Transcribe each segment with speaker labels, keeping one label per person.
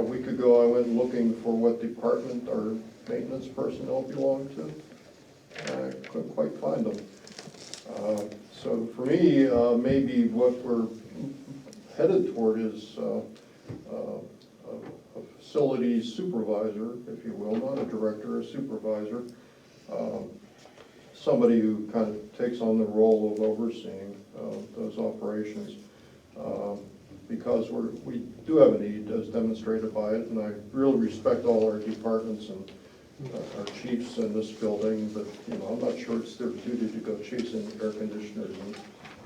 Speaker 1: A week ago, I went looking for what department our maintenance personnel belonged to, and I couldn't quite find them. Uh, So for me, uh, maybe what we're headed toward is uh, uh, a a facilities supervisor, if you will, not a director, a supervisor, um, somebody who kind of takes on the role of overseeing uh, those operations. Um, because we're, we do have a need as demonstrated by it, and I really respect all our departments and uh, our chiefs in this building, but, you know, I'm not sure it's their duty to go chasing air conditioners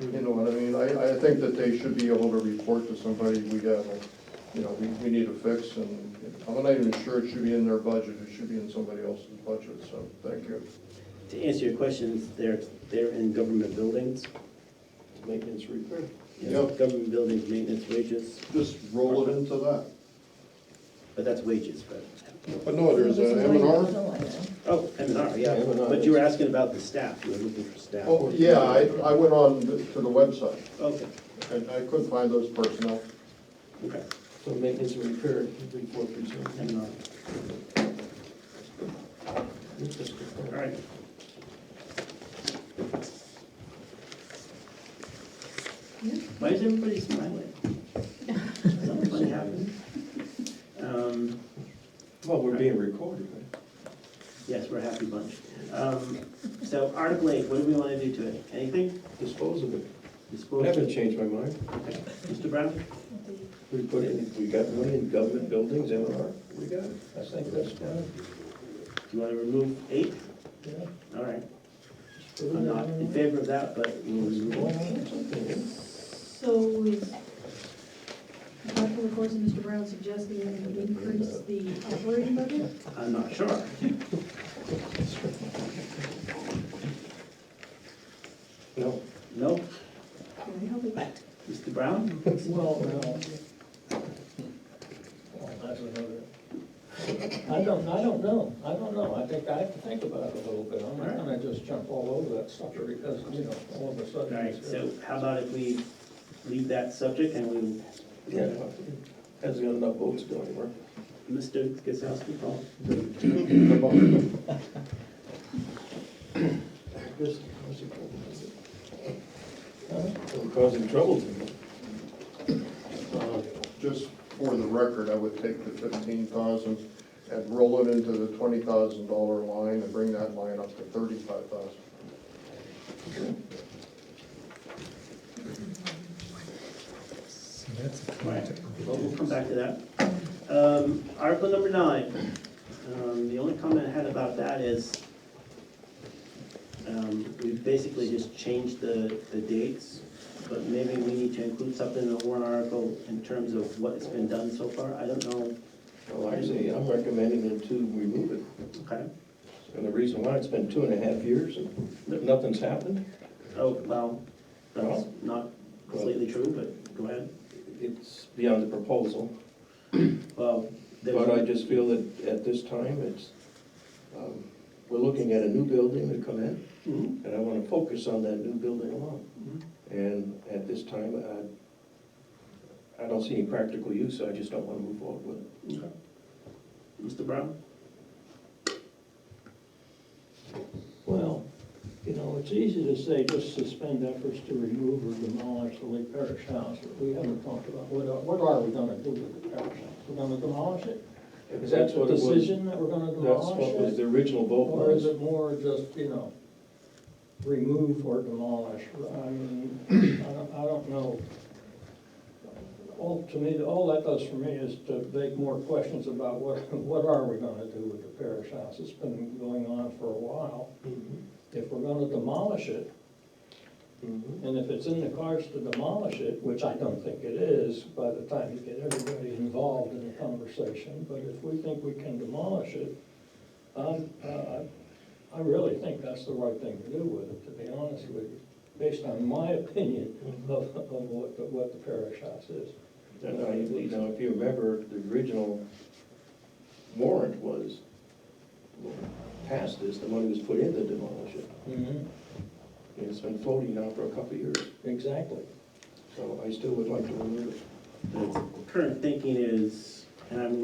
Speaker 1: and, you know what I mean? I, I think that they should be able to report to somebody, we have, a you know, we, we need a fix, and I'm not even sure it should be in their budget, it should be in somebody else's budget, so, thank you.
Speaker 2: To answer your questions, they're, they're in government buildings.
Speaker 3: Maintenance repair.
Speaker 2: Yes,
Speaker 1: Yep.
Speaker 2: Government buildings, maintenance wages,
Speaker 1: Just roll it into that.
Speaker 2: but that's wages, but,
Speaker 1: But no, there's an M and R.
Speaker 2: oh, M and R, yeah.
Speaker 3: Yeah, M&R.
Speaker 2: But you were asking about the staff, you were looking for staff.
Speaker 1: Oh, yeah, I, I went on to the website.
Speaker 2: Okay,
Speaker 1: And I couldn't find those personnel.
Speaker 2: okay,
Speaker 3: So maintenance and repair, three, four percent.
Speaker 2: M and R, all
Speaker 3: Interesting.
Speaker 2: right. Why is everybody smiling? Something happened. Um,
Speaker 4: Well, we're being recorded,
Speaker 2: Yes, we're a happy bunch. Um, So Article 8, what do we want to do to it? Anything?
Speaker 4: dispose of it. I
Speaker 2: Dispose-
Speaker 4: haven't changed my mind.
Speaker 2: Okay. Mr. Brown?
Speaker 4: We put in, we got money in government buildings, M and R, we got it. I think that's fine.
Speaker 2: Do you want to remove eight?
Speaker 4: Yeah.
Speaker 2: All right,
Speaker 4: Just put it
Speaker 2: I'm not in favor of that, but we'll remove
Speaker 4: Going
Speaker 2: it.
Speaker 4: on something.
Speaker 5: So is, Dr. LaCourse and Mr. Brown suggesting that we increase the operating budget?
Speaker 2: I'm not sure.
Speaker 4: No,
Speaker 2: No,
Speaker 5: Can I help with that?
Speaker 2: Mr. Brown?
Speaker 6: Well, no. Well, that's another. I don't, I don't know, I don't know, I think I have to think about it a little bit, I'm not gonna just jump all over that sucker because, you know, all of a
Speaker 2: All
Speaker 6: sudden.
Speaker 2: right,
Speaker 6: it's-
Speaker 2: so how about if we leave that subject and we,
Speaker 4: yeah, hasn't got enough votes to go anywhere.
Speaker 2: Mr. Gazowski, call?
Speaker 4: Just- what's it called?
Speaker 6: Huh?
Speaker 4: We're Causing trouble to me.
Speaker 1: Uh, Just for the record, I would take the fifteen thousand and roll it into the twenty thousand dollar line and bring that line up to thirty-five thousand.
Speaker 2: All right, well, we'll come back to that. Um, Article number nine, um, the only comment I had about that is, um, we basically just changed the, the dates, but maybe we need to include something in the warrant article in terms of what has been done so far, I don't know,
Speaker 4: Well, I say, I'm recommending them to remove it.
Speaker 2: okay?
Speaker 4: And the reason why, it's been two and a half years and nothing's happened.
Speaker 2: Oh, well, that's not completely true, but go ahead.
Speaker 4: It's beyond the proposal.
Speaker 2: Well,
Speaker 4: But I
Speaker 2: there's,
Speaker 4: just feel that at this time, it's, um, we're looking at a new building to come in,
Speaker 2: Mhm.
Speaker 4: and I want to focus on that new building alone.
Speaker 6: Mm-hmm.
Speaker 4: And at this time, I, I don't see any practical use, so I just don't want to move forward with it.
Speaker 2: Okay. Mr. Brown?
Speaker 6: Well, you know, it's easy to say just suspend efforts to remove or demolish the Lee Parish House, but we haven't talked about, what are, what are we gonna do with the parish house? We're gonna demolish it?
Speaker 4: Because that's what it was.
Speaker 6: The Decision that we're gonna
Speaker 4: That's
Speaker 6: demolish
Speaker 4: what
Speaker 6: it?
Speaker 4: was the original vote
Speaker 6: Or is
Speaker 4: was.
Speaker 6: it more just, you know, remove or demolish? I mean, I don't, I don't know. All, to me, all that does for me is to beg more questions about what, what are we gonna do with the parish house? It's been going on for a while.
Speaker 4: Mhm,
Speaker 6: If we're gonna demolish it,
Speaker 4: mhm.
Speaker 6: and if it's in the cards to demolish it, which I don't think it is, by the time you get everybody involved in the conversation, but if we think we can demolish it, um, uh, I really think that's the right thing to do with it, to be honest with you, based on my opinion of, of what, the- what the parish house is.
Speaker 4: And I, you know, if you remember, the original warrant was, passed this, the money was put in to demolish it. And It's been floating now for a couple of years.
Speaker 6: Exactly.
Speaker 4: So I still would like to remove it.
Speaker 2: The current thinking is, and I'm